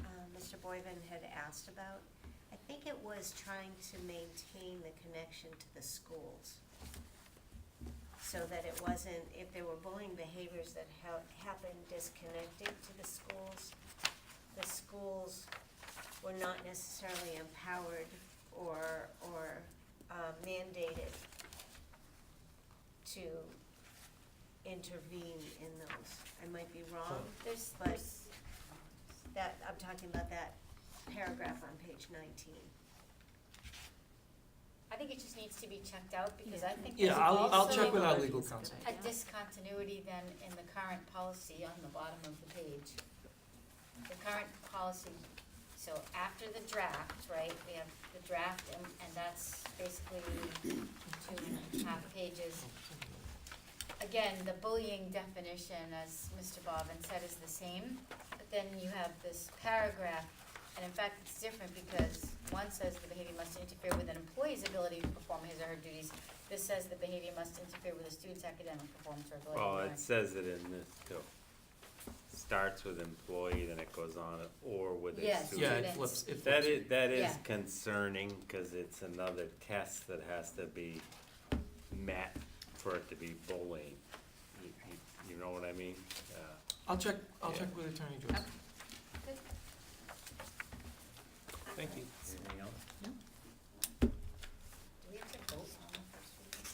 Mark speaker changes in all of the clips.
Speaker 1: um, Boyven had asked about, I think it was trying to maintain the connection to the schools. So that it wasn't, if there were bullying behaviors that ha- happened disconnected to the schools, the schools were not necessarily empowered or, or uh, mandated to intervene in those. I might be wrong,
Speaker 2: There's,
Speaker 1: But-
Speaker 2: there's,
Speaker 1: that, I'm talking about that paragraph on page nineteen.
Speaker 2: I think it just needs to be checked out because I think
Speaker 3: Yeah,
Speaker 2: there's
Speaker 3: I'll, I'll
Speaker 2: also
Speaker 3: check with our
Speaker 4: also-
Speaker 3: legal counsel.
Speaker 2: a discontinuity then in the current policy on the bottom of the page. The current policy, so after the draft, right, we have the draft and, and that's basically two and a half pages. Again, the bullying definition, as Mr. Bobbin said, is the same, but then you have this paragraph, and in fact, it's different because one says the behavior must interfere with an employee's ability to perform his or her duties. This says the behavior must interfere with a student's academic performance or ability to
Speaker 5: Well,
Speaker 2: learn.
Speaker 5: it says it in this too. Starts with employee, then it goes on, or with a
Speaker 2: Yes.
Speaker 3: Yeah,
Speaker 5: student.
Speaker 3: it
Speaker 2: Students.
Speaker 3: flips, it flips.
Speaker 5: That is, that is
Speaker 2: Yeah.
Speaker 5: concerning, cause it's another test that has to be met for it to be bullying. You, you, you know what I mean? Uh,
Speaker 3: I'll check, I'll
Speaker 5: Yeah.
Speaker 3: check with Attorney Joyce.
Speaker 2: Good.
Speaker 3: Thank you.
Speaker 5: Anything else?
Speaker 2: Do we have to vote on the first reading?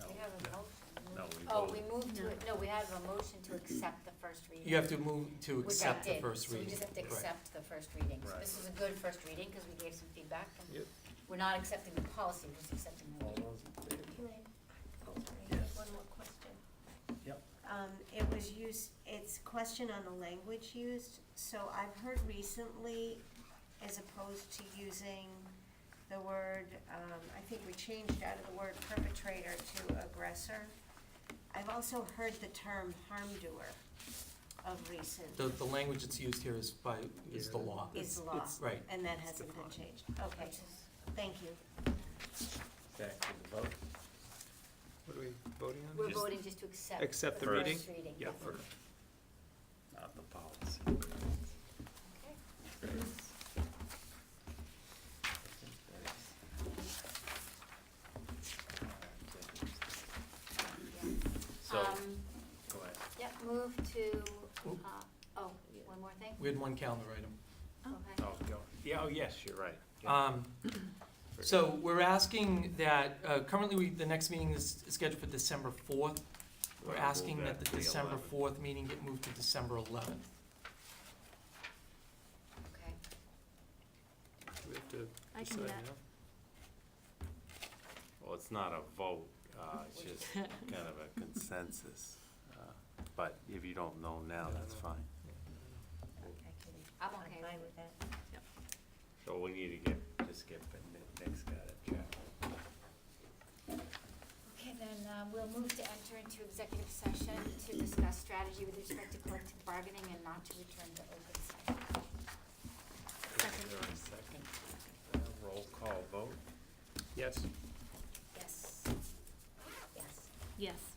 Speaker 5: No.
Speaker 2: We have a
Speaker 5: No.
Speaker 2: motion.
Speaker 5: No, we
Speaker 2: Oh,
Speaker 5: vote.
Speaker 2: we moved to, it. no, we have a motion to accept the first reading.
Speaker 3: You have to move to
Speaker 2: Which I
Speaker 3: accept the
Speaker 2: did.
Speaker 3: first reading.
Speaker 2: So we just have to
Speaker 3: Right.
Speaker 2: accept the first reading. So
Speaker 5: Right.
Speaker 2: this is a good first reading because we gave some feedback. and
Speaker 5: Yep.
Speaker 2: We're not accepting the policy, we're just accepting the
Speaker 5: All
Speaker 2: reading.
Speaker 5: those in favor?
Speaker 1: Can I, oh, I have
Speaker 5: Yes.
Speaker 1: one more question.
Speaker 5: Yep.
Speaker 1: Um, it was used, it's question on the language used, so I've heard recently, as opposed to using the word, um, I think we changed out of the word perpetrator to aggressor. I've also heard the term harm doer of recent,
Speaker 3: The, the language that's used here is by, is the law.
Speaker 1: is law,
Speaker 3: Right.
Speaker 1: and that hasn't been changed. Okay,
Speaker 2: Which is-
Speaker 1: thank you.
Speaker 5: Back to the vote.
Speaker 6: What are we voting on?
Speaker 2: We're
Speaker 5: Just
Speaker 2: voting just to accept.
Speaker 6: accept
Speaker 5: the
Speaker 2: first
Speaker 6: reading?
Speaker 2: reading.
Speaker 6: Yeah,
Speaker 2: Okay.
Speaker 6: okay.
Speaker 5: Not the policy.
Speaker 2: Yeah.
Speaker 5: So,
Speaker 2: Um,
Speaker 5: go ahead.
Speaker 2: Yep, move to,
Speaker 3: Oop.
Speaker 2: uh, oh, one more thing?
Speaker 3: We had one calendar item.
Speaker 2: Okay.
Speaker 5: Oh, go. Yeah, oh, yes, you're right. Yeah.
Speaker 3: Um, so we're asking that, uh, currently we, the next meeting is scheduled for December fourth.
Speaker 5: We'll
Speaker 3: We're
Speaker 5: move
Speaker 3: asking that
Speaker 5: to
Speaker 3: the December
Speaker 5: 11th.
Speaker 3: fourth meeting get moved to December eleventh.
Speaker 2: Okay.
Speaker 6: We have to
Speaker 4: I can do
Speaker 6: decide
Speaker 4: that.
Speaker 6: now.
Speaker 5: Well, it's not a vote, uh, it's just kind of a consensus. Uh, But if you don't know now, that's fine.
Speaker 1: I can-
Speaker 2: I'm okay.
Speaker 1: fine with that.
Speaker 5: So we need to get, just get, the ne- next guy to check.
Speaker 2: Okay, then uh, we'll move to enter into executive session to discuss strategy with respect to collective bargaining and not to return to open session.
Speaker 5: Is there a second? Uh, Roll call vote?
Speaker 6: Yes.
Speaker 2: Yes. Yes.
Speaker 4: Yes.